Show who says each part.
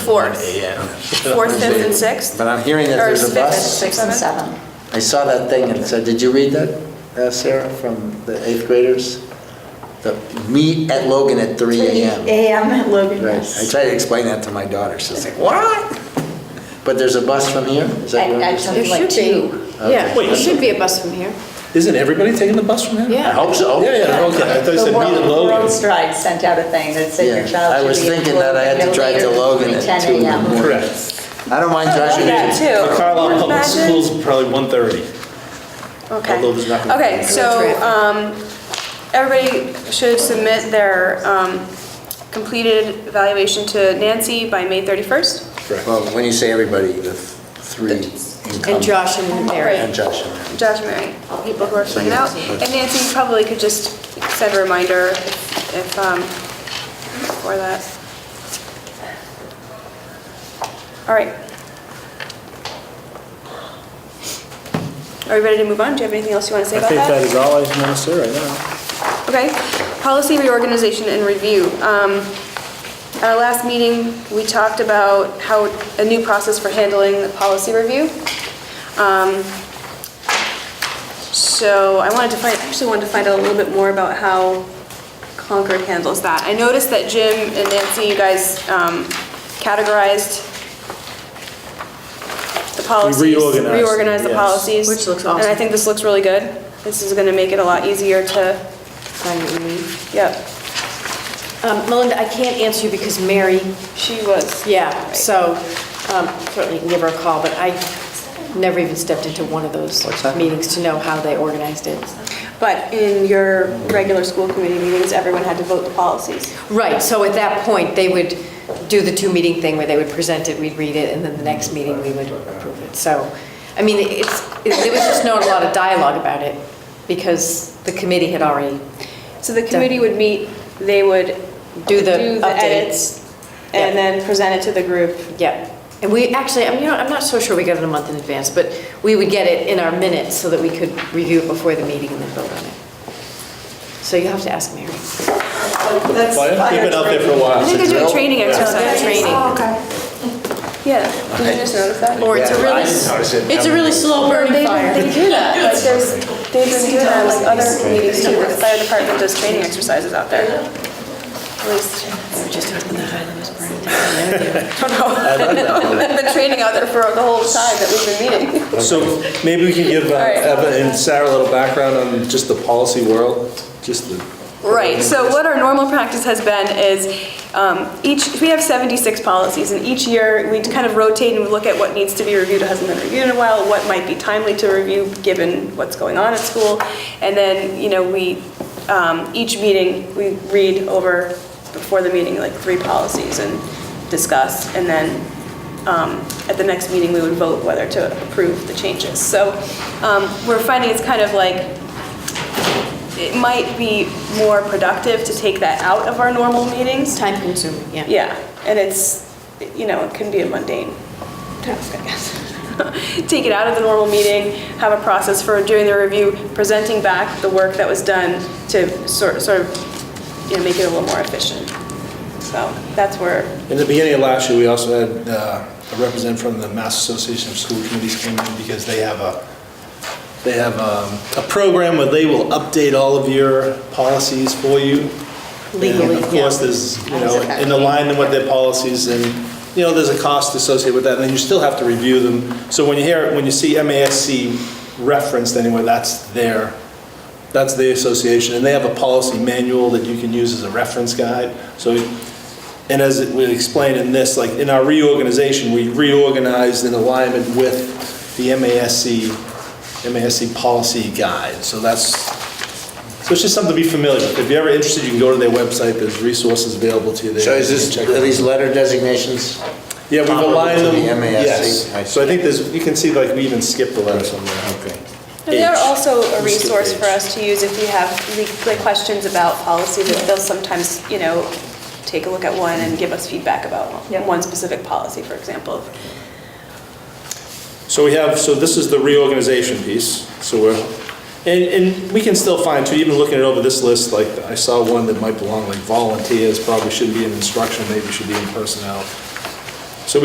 Speaker 1: Fourth, fourth, fifth, and sixth?
Speaker 2: But I'm hearing that
Speaker 1: Or
Speaker 2: there's a
Speaker 1: fifth and
Speaker 2: bus.
Speaker 1: sixth
Speaker 3: From
Speaker 1: and-
Speaker 3: seven.
Speaker 2: I saw that thing and said, did you read that, uh, Sarah, from the eighth graders? The meet at Logan at 3 AM.
Speaker 3: AM at Logan,
Speaker 2: Right.
Speaker 3: yes.
Speaker 2: I tried to explain that to my daughter. She's like, what? But there's a bus from here? Is that
Speaker 3: At-
Speaker 2: your
Speaker 3: at
Speaker 2: understanding?
Speaker 3: something
Speaker 1: There
Speaker 3: like
Speaker 1: should
Speaker 3: two.
Speaker 1: Yeah,
Speaker 4: Wait,
Speaker 1: there should be a bus from here.
Speaker 4: Isn't everybody taking the bus from here?
Speaker 1: Yeah.
Speaker 2: I hope so.
Speaker 4: Yeah, yeah, okay, I thought you said
Speaker 3: The
Speaker 4: meet at
Speaker 3: World- World
Speaker 4: Logan.
Speaker 3: Stride sent out a thing that said your
Speaker 2: Yeah, I
Speaker 3: child
Speaker 2: was
Speaker 3: should be in
Speaker 2: thinking that I had
Speaker 3: Logan
Speaker 2: to
Speaker 3: no
Speaker 2: drive to
Speaker 3: later than
Speaker 2: Logan at
Speaker 3: 10
Speaker 2: 2 in the
Speaker 3: a.m.
Speaker 2: morning.
Speaker 4: Correct.
Speaker 2: I don't mind driving.
Speaker 1: that too.
Speaker 4: The Carlisle Public
Speaker 1: Imagine.
Speaker 4: Schools is probably 1:30.
Speaker 1: Okay.
Speaker 4: Although there's not gonna be
Speaker 1: Okay,
Speaker 4: any
Speaker 1: so um, everybody should submit their um, completed evaluation to Nancy by May 31st.
Speaker 2: Well, when you say everybody, the th- three.
Speaker 5: And
Speaker 2: incumbent-
Speaker 5: Josh and Mary.
Speaker 2: And Josh. and Mary.
Speaker 1: Josh and Mary, people who are filling out. And Nancy you probably could just send a reminder if, if, um, for that. All right. Are we ready to move on? Do you have anything else you want to say about that?
Speaker 4: is all I want to say right now.
Speaker 1: Okay, policy reorganization and review. Um, At our last meeting, we talked about how, a new process for handling the policy review. Um, So I wanted to find, actually wanted to find out a little bit more about how Concord handles that. I noticed that Jim and Nancy, you guys um, categorized the policies.
Speaker 4: reorganized them,
Speaker 1: reorganized the
Speaker 4: yes.
Speaker 1: policies.
Speaker 5: Which looks
Speaker 1: And I
Speaker 5: awesome.
Speaker 1: think this looks really good. This is gonna make it a lot easier to
Speaker 5: Sign it with me.
Speaker 1: Yep,
Speaker 5: Um, Melinda, I can't answer you because Mary,
Speaker 1: she was.
Speaker 5: yeah, so um, certainly you can give her a call, but I never even stepped into one of those
Speaker 2: What's that?
Speaker 5: meetings to know how they organized it.
Speaker 1: But in your regular school committee meetings, everyone had to vote the policies.
Speaker 5: Right, so at that point, they would do the two-meeting thing where they would present it, we'd read it, and then the next meeting, we would approve it. So, I mean, it's, it- there was just not a lot of dialogue about it because the committee had already,
Speaker 1: So the committee would meet, they would
Speaker 5: Do the updates.
Speaker 1: edits, And
Speaker 5: Yeah.
Speaker 1: then present it to the group.
Speaker 5: yeah. And we actually, I'm, you know, I'm not so sure we got it a month in advance, but we would get it in our minutes so that we could review it before the meeting and then vote on it. So you'll have to ask Mary.
Speaker 3: That's
Speaker 4: Well, I've been out there for a
Speaker 1: I think
Speaker 4: while.
Speaker 1: they're doing a training exercise.
Speaker 5: Training.
Speaker 1: Oh, Yeah, did you just notice that?
Speaker 5: Or it's a
Speaker 2: Yeah, I
Speaker 5: really,
Speaker 2: didn't notice it.
Speaker 5: it's a really slow burning fire.
Speaker 1: They do that, like there's, they've been doing that like other committees too, where the fire department does training exercises out there. At least,
Speaker 5: Just open the fire that was burning.
Speaker 1: I don't know. They've been training out there for the whole time that we've been meeting.
Speaker 4: So maybe we can give uh,
Speaker 1: right.
Speaker 4: Eva and Sarah a little background on just the policy world, just the.
Speaker 1: Right, so what our normal practice has been is um, each, we have 76 policies, and each year we kind of rotate and we look at what needs to be reviewed, hasn't been reviewed in a while, what might be timely to review, given what's going on at school. And then, you know, we, um, each meeting, we read over, before the meeting, like three policies and discuss, and then um, at the next meeting, we would vote whether to approve the changes. So um, we're finding it's kind of like, it might be more productive to take that out of our normal meetings.
Speaker 5: Time consuming, yeah.
Speaker 1: Yeah, and it's, you know, it can be a mundane task, I guess. Take it out of the normal meeting, have a process for doing the review, presenting back the work that was done to sort sort of, you know, make it a little more efficient. So that's where,
Speaker 4: In the beginning of last year, we also had uh, a representative from the Mass Association of School Committees came in because they have a, they have um, a program where they will update all of your policies for you.
Speaker 5: Legally,
Speaker 4: And of
Speaker 5: yeah.
Speaker 4: course, there's, you know, in alignment with their policies and, you know, there's a cost associated with that and you still have to review them. So when you hear, when you see MASC referenced anywhere, that's their, that's the association. And they have a policy manual that you can use as a reference guide. So and as it- we explained in this, like, in our reorganization, we reorganized in alignment with the MASC, MASC policy guide. So that's, so it's just something to be familiar with. If you're ever interested, you can go to their website, there's resources available to you there.
Speaker 2: So is
Speaker 4: You can
Speaker 2: this,
Speaker 4: check
Speaker 2: are
Speaker 4: them out.
Speaker 2: these letter designations?
Speaker 4: Yeah, we've
Speaker 2: comparable
Speaker 4: aligned
Speaker 2: to
Speaker 4: them.
Speaker 2: the MASC? I
Speaker 4: Yes. So I think there's, you can see, like, we even skipped the letter somewhere.
Speaker 2: Okay.
Speaker 1: And they're
Speaker 4: Age.
Speaker 1: also a
Speaker 4: Let's get
Speaker 1: resource
Speaker 4: age.
Speaker 1: for us to use if we have le- like questions about policy that they'll sometimes, you know, take a look at one and give us feedback about one specific policy, for example.
Speaker 4: So we have, so this is the reorganization piece, so we're, and, and we can still find, too, even looking it over this list, like, I saw one that might belong, like volunteers, probably shouldn't be in instruction, maybe should be in personnel.